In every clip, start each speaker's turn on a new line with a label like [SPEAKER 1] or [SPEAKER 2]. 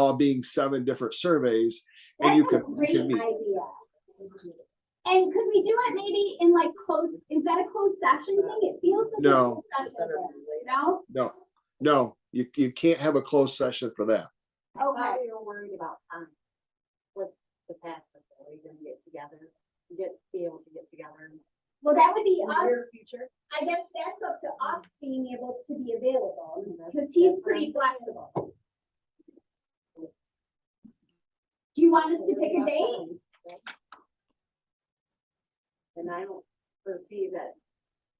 [SPEAKER 1] all being seven different surveys. And you
[SPEAKER 2] That's a
[SPEAKER 1] could- you
[SPEAKER 2] great
[SPEAKER 1] can meet.
[SPEAKER 2] idea. And could we do it maybe in like close, is that a closed session thing? It feels like. a
[SPEAKER 1] No.
[SPEAKER 2] closed session thing. No?
[SPEAKER 1] No, no, you, you can't have a closed session for that.
[SPEAKER 2] Okay,
[SPEAKER 3] we were worried about time. What's the past, are we gonna get together, get, be able to get together?
[SPEAKER 2] well, that would be
[SPEAKER 3] in the
[SPEAKER 2] us,
[SPEAKER 3] near future?
[SPEAKER 2] I guess that's up to us being able to be available, because he's pretty flexible. Do you want us to pick a date?
[SPEAKER 3] And I don't foresee that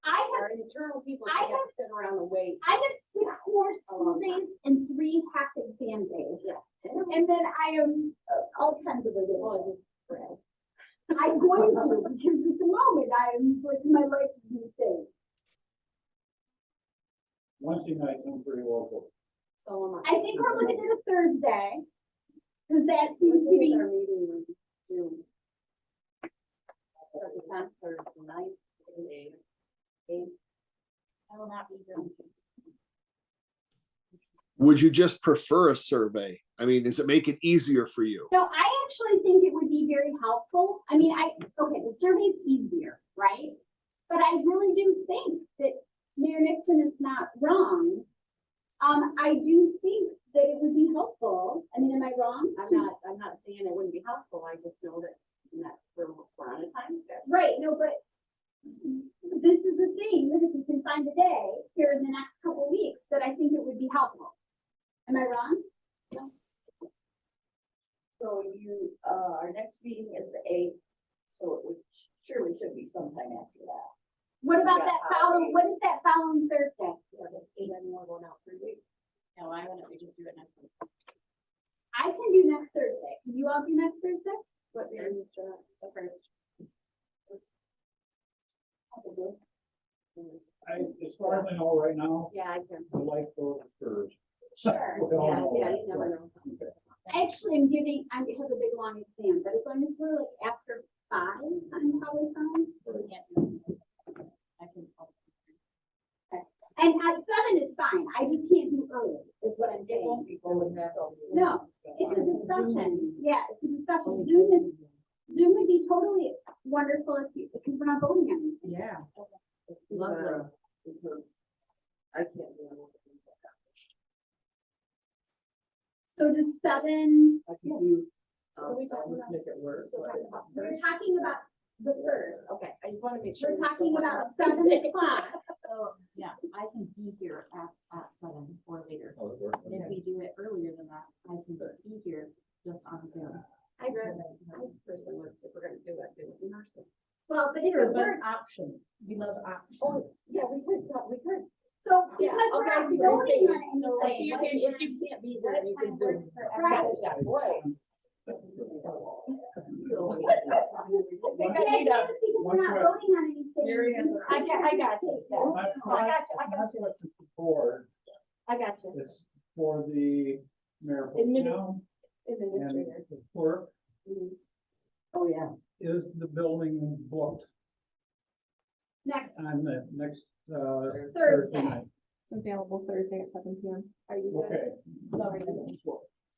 [SPEAKER 2] I have,
[SPEAKER 3] our internal people
[SPEAKER 2] I
[SPEAKER 3] can
[SPEAKER 2] have-
[SPEAKER 3] sit around and wait.
[SPEAKER 2] I have six more school days and three half exam days. And then I am uh, all kinds of other ones. I'm going to, because at the moment, I'm, like, my life is insane.
[SPEAKER 4] Wednesday night, I'm pretty local.
[SPEAKER 3] So am I.
[SPEAKER 2] I think we're looking at a Thursday. Does that seem to be,
[SPEAKER 3] Our meeting was June. Or the tenth or the ninth, eighth, eighth. I will not be doing.
[SPEAKER 1] Would you just prefer a survey? I mean, does it make it easier for you?
[SPEAKER 2] no, I actually think it would be very helpful. I mean, I, okay, the survey's easier, right? But I really do think that Mayor Nixon is not wrong. Um, I do think that it would be helpful. I mean, am I wrong?
[SPEAKER 3] I'm not, I'm not saying it wouldn't be helpful, I just know that, that we're, we're on a time schedule.
[SPEAKER 2] Right, no, but this is the thing, that if we can find a day here in the next couple weeks, that I think it would be helpful. Am I wrong?
[SPEAKER 3] So you, uh, our next meeting is the eighth, so it would surely should be sometime after that.
[SPEAKER 2] What about
[SPEAKER 3] Yeah,
[SPEAKER 2] that
[SPEAKER 3] I'll
[SPEAKER 2] following,
[SPEAKER 3] be-
[SPEAKER 2] what is that following Thursday?
[SPEAKER 3] Yeah, but then we're going out three weeks. No, I wouldn't, we just do it next week.
[SPEAKER 2] I can do next Thursday. Can you all do next Thursday?
[SPEAKER 3] What day is the, the first?
[SPEAKER 4] I, as far as I know right now,
[SPEAKER 3] Yeah, I can.
[SPEAKER 4] the life goes first.
[SPEAKER 3] Sure,
[SPEAKER 4] We all
[SPEAKER 3] yeah,
[SPEAKER 4] know
[SPEAKER 3] yeah,
[SPEAKER 4] that,
[SPEAKER 3] you never know.
[SPEAKER 2] Actually, I'm giving, I have a big long exam, but as long as we're like after five, I'm probably fine.
[SPEAKER 3] We can't do it. I can.
[SPEAKER 2] And at seven is fine. I just can't do early, is what I'm
[SPEAKER 3] It
[SPEAKER 2] saying.
[SPEAKER 3] won't be going back on.
[SPEAKER 2] No, It's a discussion. Yeah, it's a discussion. Zoom is, Zoom would be totally wonderful if you, because we're not voting on it.
[SPEAKER 3] Yeah.
[SPEAKER 5] Lovely.
[SPEAKER 3] Because I can't do anything.
[SPEAKER 2] So does seven,
[SPEAKER 5] I can use,
[SPEAKER 3] Are
[SPEAKER 5] um,
[SPEAKER 3] we talking about-
[SPEAKER 5] I'll just make it work.
[SPEAKER 2] we're talking about the first.
[SPEAKER 3] Okay, I just wanna make sure.
[SPEAKER 2] We're talking about seven o'clock.
[SPEAKER 6] Oh, yeah, I can be here at, at seven or later.
[SPEAKER 4] how it works.
[SPEAKER 6] And If we do it earlier than that, I can be here just on Zoom.
[SPEAKER 3] I read, I personally would, if we're gonna do that, do it in person.
[SPEAKER 2] Well, but if it works,
[SPEAKER 5] option, we love options.
[SPEAKER 3] Oh, yeah, we could, yeah, we could.
[SPEAKER 2] so
[SPEAKER 3] Yeah,
[SPEAKER 2] because we're
[SPEAKER 3] okay,
[SPEAKER 2] not
[SPEAKER 3] so
[SPEAKER 2] voting
[SPEAKER 3] you're saying-
[SPEAKER 2] on
[SPEAKER 3] If
[SPEAKER 2] anything.
[SPEAKER 3] you can, if you can't be there, you can do. it.
[SPEAKER 2] Right.
[SPEAKER 3] Yeah, boy.
[SPEAKER 2] But the idea is because we're not voting on anything.
[SPEAKER 3] I got, I got you.
[SPEAKER 2] Well,
[SPEAKER 4] My-
[SPEAKER 3] I got you, I
[SPEAKER 4] my- my
[SPEAKER 3] got you,
[SPEAKER 4] question is for-
[SPEAKER 3] I got you.
[SPEAKER 4] It's for the mayor of
[SPEAKER 3] Admin-
[SPEAKER 4] town and
[SPEAKER 3] Administrator.
[SPEAKER 4] the clerk.
[SPEAKER 3] Mhm. Oh, yeah.
[SPEAKER 4] Is the building booked
[SPEAKER 2] Next,
[SPEAKER 4] on the next, uh, Thursday
[SPEAKER 2] Thursday.
[SPEAKER 4] night?
[SPEAKER 6] It's available Thursday at seven P M.
[SPEAKER 3] Are you good?
[SPEAKER 4] Okay.
[SPEAKER 3] Sorry.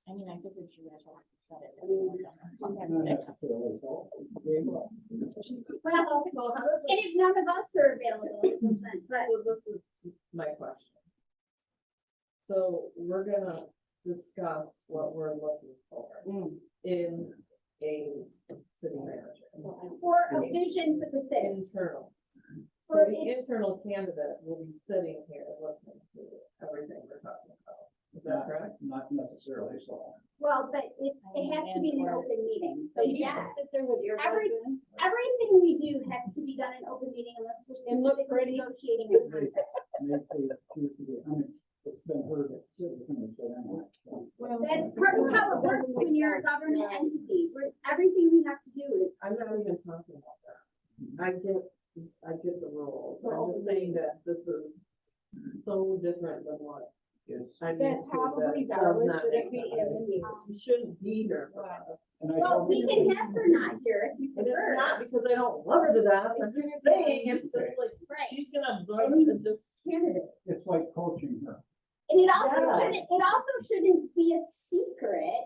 [SPEAKER 6] I mean, I think we should actually shut it.
[SPEAKER 3] I mean,
[SPEAKER 4] Not
[SPEAKER 3] Mm-hmm.
[SPEAKER 4] necessarily.
[SPEAKER 2] Well,
[SPEAKER 5] So how
[SPEAKER 2] and if none of us are available, it doesn't, but
[SPEAKER 5] does, this is my question. So we're gonna discuss what we're looking for in a city manager,
[SPEAKER 2] for a vision for the city.
[SPEAKER 5] internal. So
[SPEAKER 2] For it-
[SPEAKER 5] the internal candidate will be sitting here listening to everything we're talking about. Is that correct?
[SPEAKER 4] Not necessarily, so.
[SPEAKER 2] Well, but it, it has to be in an open meeting. So yes,
[SPEAKER 3] sit there with your.
[SPEAKER 2] Every- everything we do has to be done in open meeting unless we're
[SPEAKER 3] And look
[SPEAKER 2] specifically negotiating.
[SPEAKER 4] Maybe-
[SPEAKER 2] a contract.
[SPEAKER 4] maybe it's to be un- It's been heard, it's still, so
[SPEAKER 2] That's part of how it works when you're a government entity. We're- Everything we have to do is,
[SPEAKER 5] I'm not even talking about that. I get, I get the rules. I'm just saying that this is so different than what
[SPEAKER 4] it's,
[SPEAKER 5] I'm used to. That does not make sense. You shouldn't be here for us.
[SPEAKER 4] and I
[SPEAKER 2] um, well,
[SPEAKER 4] told
[SPEAKER 2] we
[SPEAKER 4] you-
[SPEAKER 2] can have her not here if you
[SPEAKER 5] And it's
[SPEAKER 2] prefer.
[SPEAKER 5] not because I don't love her to death. That's what you're saying. It's just like,
[SPEAKER 2] Right.
[SPEAKER 5] she's gonna absorb the dis-
[SPEAKER 2] Candidate.
[SPEAKER 4] It's like coaching her.
[SPEAKER 2] And it also
[SPEAKER 3] Yeah.
[SPEAKER 2] shouldn't, it also shouldn't be a secret